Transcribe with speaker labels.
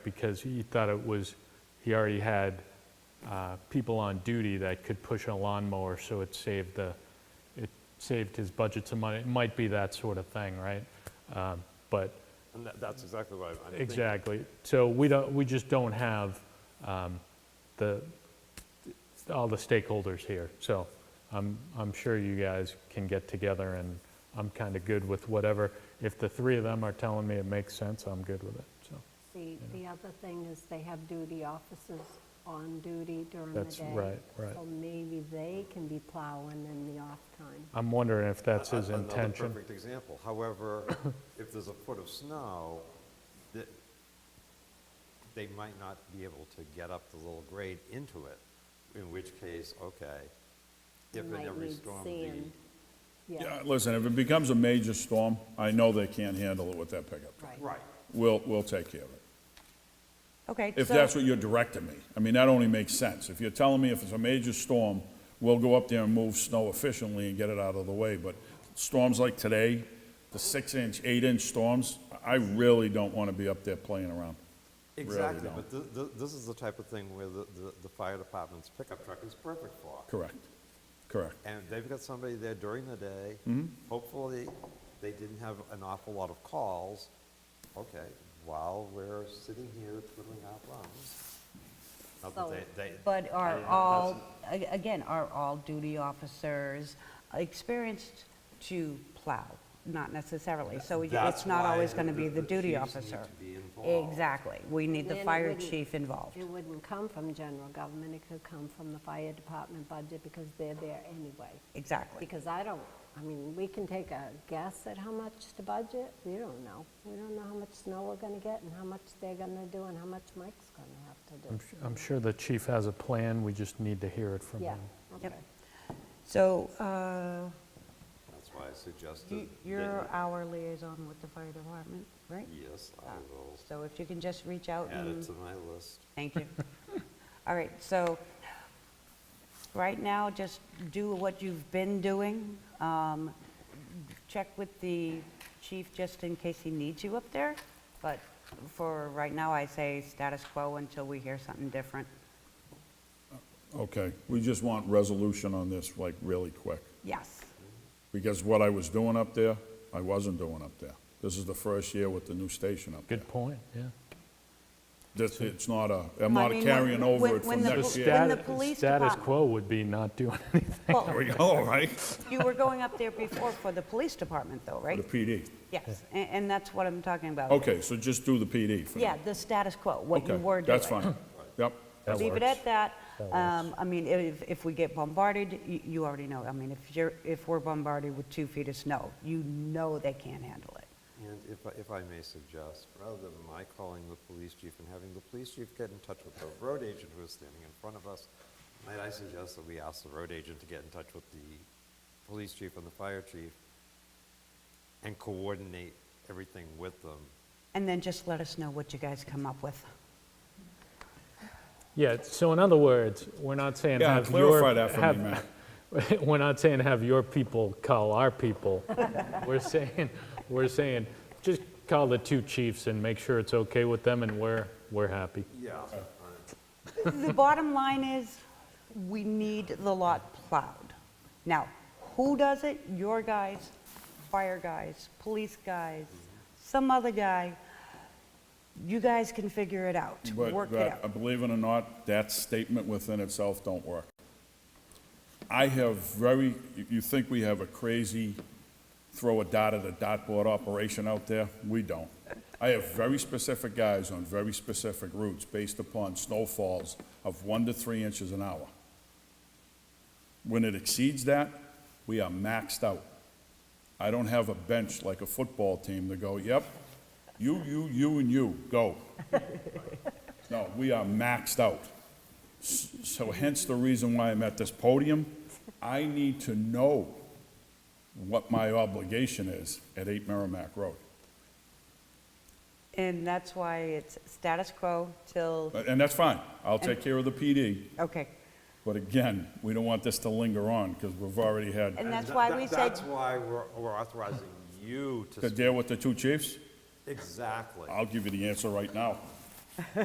Speaker 1: because he thought it was, he already had uh, people on duty that could push a lawnmower, so it saved the, it saved his budget some money. It might be that sort of thing, right? Um, But,
Speaker 2: And that- that's exactly what I'm thinking.
Speaker 1: exactly. So we don't, we just don't have um, the, all the stakeholders here. So I'm, I'm sure you guys can get together, and I'm kind of good with whatever. If the three of them are telling me it makes sense, I'm good with it, so.
Speaker 3: The, the other thing is they have duty officers on duty during the day.
Speaker 1: That's right, right.
Speaker 3: So maybe they can be plowing in the off time.
Speaker 1: I'm wondering if that's his
Speaker 2: A- Another
Speaker 1: intention.
Speaker 2: perfect example. However, if there's a foot of snow, th- they might not be able to get up the little grade into it, in which case, okay. If in
Speaker 3: Might
Speaker 2: every
Speaker 3: need
Speaker 2: storm,
Speaker 3: sand.
Speaker 2: the
Speaker 3: Yeah,
Speaker 4: Yeah, listen, if it becomes a major storm, I know they can't handle it with that pickup truck.
Speaker 3: right.
Speaker 2: Right.
Speaker 4: We'll, we'll take care of it.
Speaker 5: Okay,
Speaker 4: If
Speaker 5: so-
Speaker 4: that's what you're directing me. I mean, that only makes sense. If you're telling me if it's a major storm, we'll go up there and move snow efficiently and get it out of the way. But storms like today, the six-inch, eight-inch storms, I really don't want to be up there playing around.
Speaker 2: Exactly,
Speaker 4: don't.
Speaker 2: but th- th- this is the type of thing where the- the the fire department's pickup truck is perfect for.
Speaker 4: Correct, correct.
Speaker 2: And they've got somebody there during the day. Hopefully, they didn't have an awful lot of calls. Okay, while we're sitting here twiddling our thumbs. Not that
Speaker 3: So-
Speaker 2: they- they-
Speaker 5: But
Speaker 2: I
Speaker 5: are
Speaker 2: don't know,
Speaker 5: all, a- again, are all duty officers experienced to plow? Not necessarily, so it-
Speaker 2: That's
Speaker 5: it's not
Speaker 2: why
Speaker 5: always going to be
Speaker 2: the-
Speaker 5: the
Speaker 2: the
Speaker 5: duty
Speaker 2: chiefs need
Speaker 5: officer.
Speaker 2: to be involved.
Speaker 5: Exactly, we need the
Speaker 3: Then it
Speaker 5: fire
Speaker 3: wouldn't-
Speaker 5: chief involved.
Speaker 3: It wouldn't come from general government, it could come from the fire department budget because they're there anyway.
Speaker 5: Exactly.
Speaker 3: Because I don't, I mean, we can take a guess at how much to budget, we don't know. We don't know how much snow we're gonna get and how much they're gonna do and how much Mike's gonna have to do.
Speaker 1: I'm su- I'm sure the chief has a plan, we just need to hear it from
Speaker 3: Yeah,
Speaker 1: him.
Speaker 3: okay.
Speaker 5: Yep. So uh,
Speaker 2: That's why I
Speaker 5: you-
Speaker 2: suggested.
Speaker 5: you're
Speaker 2: that-
Speaker 5: our liaison with the fire department, right?
Speaker 2: Yes, I
Speaker 5: Uh,
Speaker 2: will
Speaker 5: So if you can just reach out
Speaker 2: add it
Speaker 5: and
Speaker 2: to my list.
Speaker 5: Thank you. All right, so, right now, just do what you've been doing. Um, Check with the chief just in case he needs you up there, but for right now, I say status quo until we hear something different.
Speaker 4: Okay, we just want resolution on this, like, really quick.
Speaker 5: Yes,
Speaker 4: Because what I was doing up there, I wasn't doing up there. This is the first year with the new station up there.
Speaker 1: Good point, yeah.
Speaker 4: This, it's not a, I'm
Speaker 5: I
Speaker 4: not
Speaker 5: mean,
Speaker 4: carrying
Speaker 5: when-
Speaker 4: over
Speaker 5: when-
Speaker 4: it from
Speaker 5: when the
Speaker 4: next
Speaker 5: pol-
Speaker 4: year.
Speaker 5: When the
Speaker 1: Status-
Speaker 5: police
Speaker 1: Status
Speaker 5: department-
Speaker 1: quo would be not doing anything.
Speaker 5: well,
Speaker 4: All right.
Speaker 5: you were going up there before for the police department, though,
Speaker 4: The
Speaker 5: right?
Speaker 4: PD.
Speaker 5: Yes, a- and that's what I'm talking about.
Speaker 4: Okay, so just do the PD for now.
Speaker 5: Yeah, the status quo, what you
Speaker 4: Okay,
Speaker 5: were doing.
Speaker 4: That's fine. Yep. that
Speaker 5: leave it
Speaker 4: works.
Speaker 5: at that. Um, I mean, if, if we get bombarded, you, you already know. I mean, if you're, if we're bombarded with two feet of snow, you know they can't handle it.
Speaker 2: And if, I- if I may suggest, rather than my calling the police chief and having the police chief get in touch with the road agent who is standing in front of us, might I suggest that we ask the road agent to get in touch with the police chief and the fire chief and coordinate everything with them?
Speaker 5: And then just let us know what you guys come up with.
Speaker 1: Yeah, so in other words, we're not saying
Speaker 4: Yeah,
Speaker 1: have your...
Speaker 4: clarify that for me,
Speaker 1: have- We're not saying have your people call our people. We're saying, we're saying, just call the two chiefs and make sure it's okay with them, and we're, we're happy.
Speaker 2: Yeah.
Speaker 5: The bottom line is, we need the lot plowed. Now, who does it? Your guys, fire guys, police guys, some other guy. You guys can figure it out,
Speaker 4: But
Speaker 5: work it
Speaker 4: that- uh,
Speaker 5: out.
Speaker 4: Believe it or not, that statement within itself don't work. I have very, you- you think we have a crazy throw a dot at a dartboard operation out there? We don't. I have very specific guys on very specific routes based upon snowfalls of one to three inches an hour. When it exceeds that, we are maxed out. I don't have a bench like a football team to go, yep, you, you, you, and you, go. No, we are maxed out. S- So hence the reason why I'm at this podium. I need to know what my obligation is at 8 Merrimack Road.
Speaker 5: And that's why it's status quo till,
Speaker 4: A- And that's fine. I'll take care of the PD.
Speaker 5: okay.
Speaker 4: But again, we don't want this to linger on because we've already had,
Speaker 5: And that's why we said.
Speaker 2: That's why we're, we're authorizing you to,
Speaker 4: to
Speaker 2: s-
Speaker 4: deal with the two chiefs.
Speaker 2: exactly.
Speaker 4: I'll give you the answer right now.